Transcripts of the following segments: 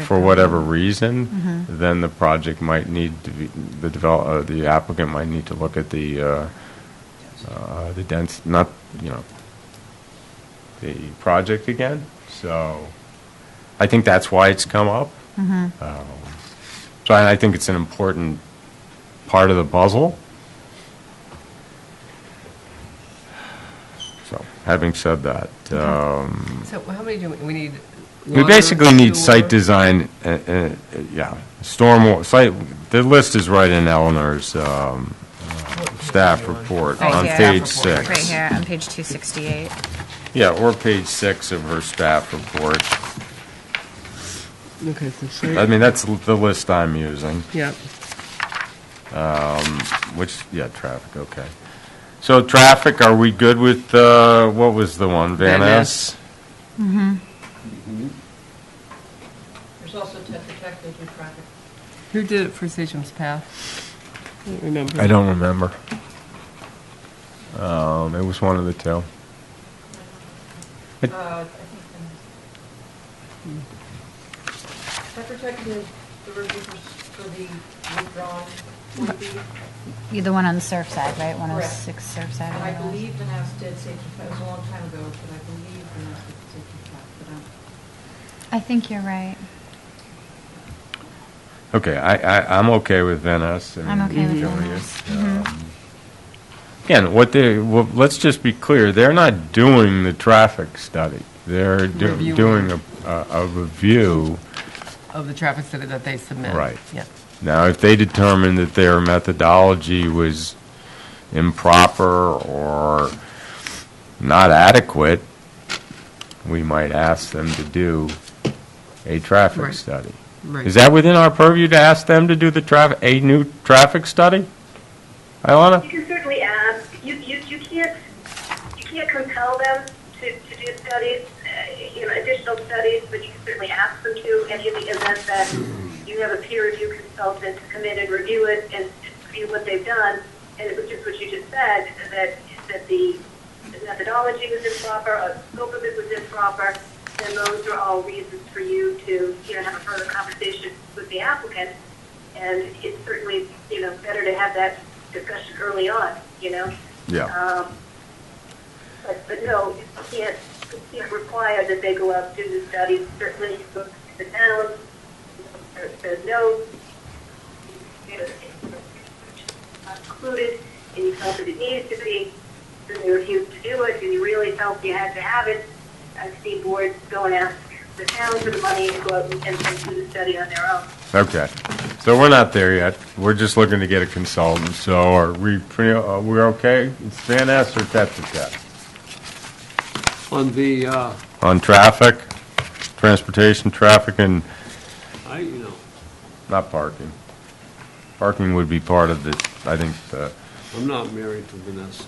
for whatever reason, then the project might need to be, the develop, uh, the applicant might need to look at the, uh, uh, the dense, not, you know, the project again. So I think that's why it's come up. Um, So I I think it's an important part of the puzzle. So, having said that, um, So how many do we, we need? we water, basically need site sewer? design, uh, uh, uh, yeah, storm, site, the list is right in Eleanor's um, staff report Right on here. page Right six. here, on page 268. Yeah, or page six of her staff report. Okay, so I site, mean, that's l- the list I'm using, yeah, which, yeah, traffic, okay. So traffic, are we good with, uh, what was the one, Van Van Ness? Mm-hmm. There's also Tetra Tech, they do traffic. who did it for Sagem's Path? I don't remember. I don't remember. Um, It was one of the two. It- Uh, I think um, Tetra Tech did the review for s- for the withdrawn 40B, You're the one on Surfside, right? Correct. 106 Surfside. and I whatever it was. believe the NAS did safety, it was a long time ago, but I believe the NAS did safety track, but um, I'm. I think you're right. Okay, I, I, I'm okay with Van Ness. I I'm mean, okay with Joey is. Van Ness. Mhm. Um, Again, what they, well, let's just be clear, they're not doing the traffic study. They're do- Reviewing. doing a, a a review. Of the traffic study that they submit. Right. Yeah. Now, if they determine that their methodology was improper or not adequate, we might ask them to do a traffic Right. study. Right. Is that within our purview to ask them to do the traffic, a new traffic study? You Ilona? can certainly ask. You, you, you can't you can't compel them to, to do studies, uh, you know, additional studies, but you can certainly ask them to. And in the event that you have a peer review consultant to come in and review it and review what they've done, and it was just what you just said that that the methodology was improper, or the scope of it was improper, then those are all reasons for you to you know have a further conversation with the applicant. And it's certainly you know better to have that discussion early on, you know. Um, But, but no, you can't, you can't require that they go out and do the studies, certainly you go to the town, there- there's no, included, and you felt that it needed to be, then they refused to do it, and you really felt you had to have it, I've seen boards go and ask the town for the money and go out and, and do the study on their own. Okay. So we're not there yet. We're just looking to get a consultant, so are we, pretty? uh, we're okay? It's Van Ness or Tetra Tech? On the, uh, On traffic, transportation, traffic, and I, you know, not parking. Parking would be part of the, I think, the, I'm not married to Vanessa,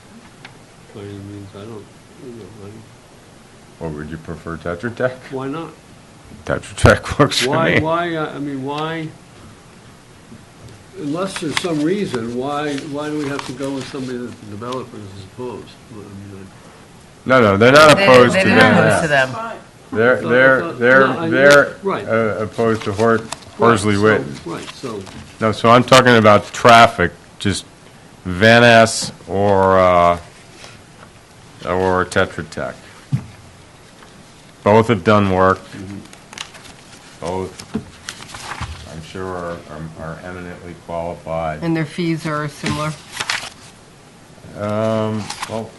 by any means, I don't, you know, I- or would you prefer Tetra Tech? why not? Tetra Tech works for Why, me. why, uh, I mean, why, unless there's some reason, why, why do we have to go with somebody that the developer is opposed? I mean, No, no, they're not They- opposed to They didn't Van lose to Ness. them. They're, thought- I they're, thought- no, I they're, mean, they're right. uh, opposed to Hor- I- Horsley so- Witten. Right, so, No, so I'm talking about traffic, just Van Ness or, uh, or Tetra Tech. Both have done work. Mm-hmm. Both, I'm sure, are- are eminently qualified. And their fees are similar. Um, well,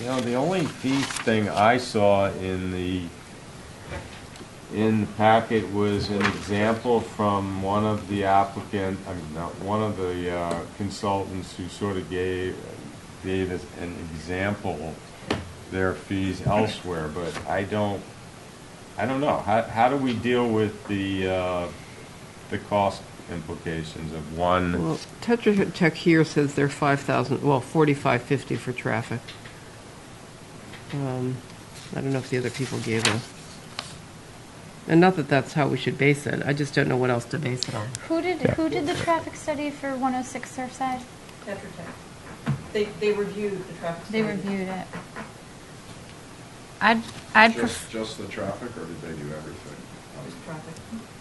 you know, the only fee thing I saw in the, in the packet was an example from one of the applicant, I mean, not, one of the uh, consultants who sort of gave, gave us an example of their fees elsewhere, but I don't, I don't know. How, how do we deal with the, uh, the cost implications of one? Well, Tetra Tech here says they're 5,000, well, 4550 for traffic. Um, I don't know if the other people gave a, and not that that's how we should base it, I just don't know what else to base it on. Who did, who did the traffic study for 106 Surfside? Tetra Tech. They, they reviewed the traffic. They study. reviewed it. I'd, I'd prefer... Just, just the traffic, or did they do everything? Just traffic.